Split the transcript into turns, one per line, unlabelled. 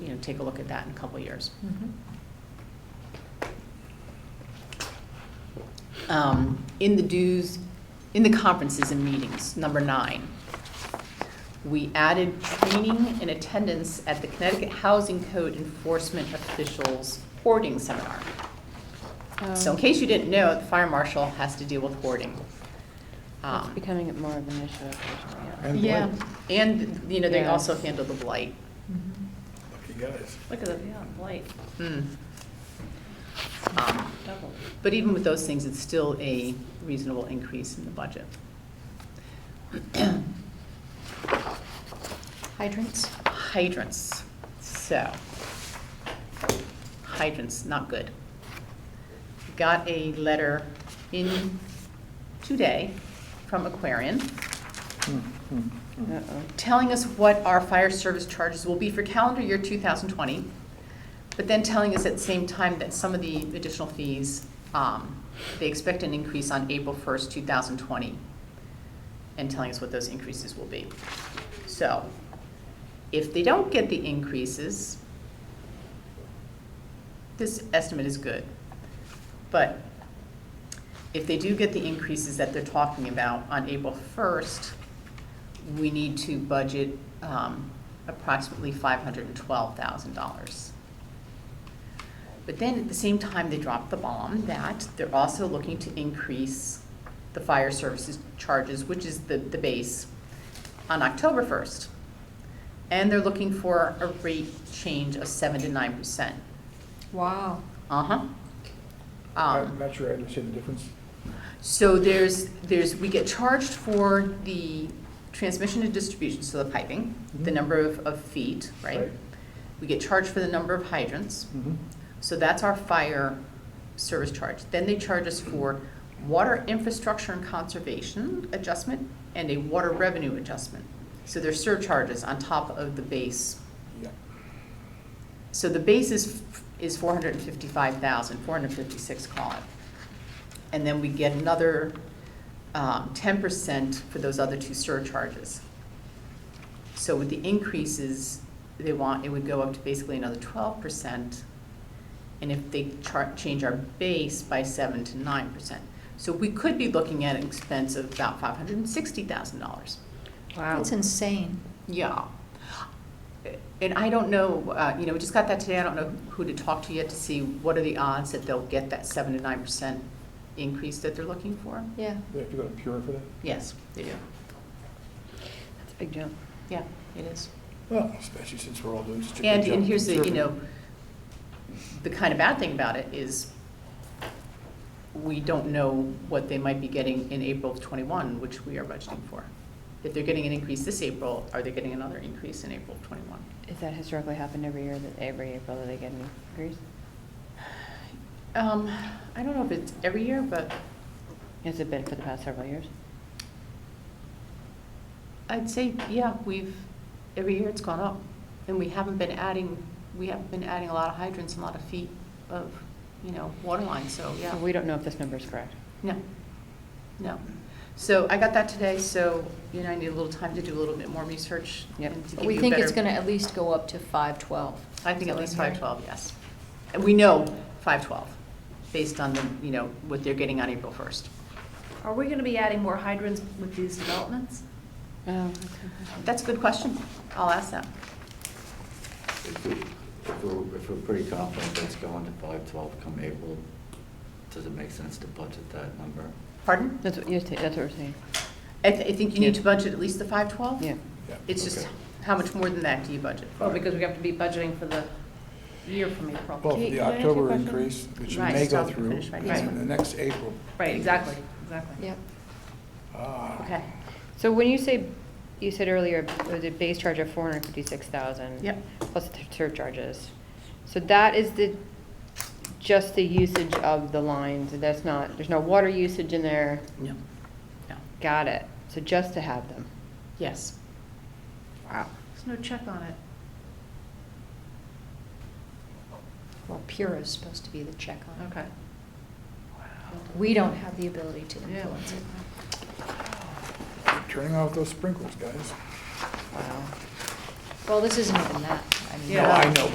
take a look at that in a couple of years. Um, In the dues, in the conferences and meetings, number nine, we added training and attendance at the Connecticut Housing Code Enforcement Officials Hoarding Seminar. So in case you didn't know, the fire marshal has to deal with hoarding.
It's
Um,
becoming more of an issue, unfortunately, yeah.
And
Yeah, and, you know, they
Yeah.
also handle the blight.
Lucky guys.
Look at the, yeah, blight. Hmm. Um, But even with those things, it's still a reasonable increase in the budget.
Hydrants?
Hydrants, so, hydrants, not good. Got a letter in today from Aquarian
Hmm,
Um, Mm-hmm. Uh-oh.
telling us what our fire service charges will be for calendar year 2020, but then telling us at the same time that some of the additional fees, um, they expect an increase on April 1st, 2020, and telling us what those increases will be. So if they don't get the increases, this estimate is good. But if they do get the increases that they're talking about on April 1st, we need to budget um, approximately $512,000. But then, at the same time, they dropped the bomb that they're also looking to increase the fire services charges, which is the, the base, on October 1st. And they're looking for a rate change of 7 to 9%.
Wow.
Uh-huh. Um,
I'm not sure I understand the difference.
so there's, there's, we get charged for the transmission and distribution, so the piping, the
Mhm.
number of, of feet, right?
Right.
We get charged for the number of hydrants,
Mhm.
so that's our fire service charge. Then they charge us for water infrastructure and conservation adjustment and a water revenue adjustment. So there's surcharges on top of the base.
Yeah.
So the base is, is four hundred and fifty-five thousand, four hundred and fifty-six, call it. And then we get another um, ten percent for those other two surcharges. So with the increases they want, it would go up to basically another twelve percent. And if they char, change our base by seven to nine percent. So we could be looking at an expense of about five hundred and sixty thousand dollars.
Wow.
That's insane.
Yeah. And I don't know, uh, you know, we just got that today, I don't know who to talk to yet to see what are the odds that they'll get that seven to nine percent increase that they're looking for.
Yeah.
They have to go to Pura for that?
Yes, they do.
That's a big jump.
Yeah, it is.
Well, especially since we're all doing such a good job.
And, and here's the, you
conserving.
know, the kind of bad thing about it is we don't know what they might be getting in April of twenty-one, which we are budgeting for. If they're getting an increase this April, are they getting another increase in April of twenty-one?
Is that historically happened every year, that every April that they get an increase?
Um, I don't know if it's every year, but
Has it been for the past several years?
I'd say, yeah, we've, every year it's gone up, and we haven't been adding, we haven't been adding a lot of hydrants and a lot of feet of, you know, water lines, so, yeah.
So We don't know if this number is correct.
No, no. So I got that today, so, you know, I need a little time to do a little bit more research.
Yep.
and to
But
give
we
you a
think it's
better-
going to at least go up to 512.
I think
Is
at
that
least
what I'm
five
hearing?
twelve, yes. And we know five twelve, based on the, you know, what they're getting on April first.
Are we gonna be adding more hydrants with these developments?
Oh,
That's a good question. I'll ask that.
If we- if we're, if we're pretty confident that's going to five twelve come April, does it make sense to budget that number?
Pardon?
That's what you're saying, that's what we're saying,
I, th- I think you need to
Yeah.
budget at least the five twelve?
yeah.
Yeah.
It's just,
Okay.
how much more than that do you budget?
Well, because we have to be budgeting for the year from April.
Well, for
Kate,
the
can I ask you a
October
question?
increase, which
Right.
may go
Stop and
through,
finish, right.
and then the next April.
Right, exactly, exactly.
Yep.
Ah.
Okay,
So when you say, you said earlier, it was a base charge of four hundred fifty-six thousand.
Yep.
Plus the surcharges. So that is the, just the usage of the lines, and that's not, there's no water usage in there,
no, no,
got it. So just to have them.
yes.
Wow.
There's no check on it.
Well, Pura is supposed to be the check on it.
Okay.
We don't have the ability to
Yeah.
influence it.
Turning off those sprinkles, guys.
Wow.
Well, this isn't even that. I mean,
No,
Yeah.
I know,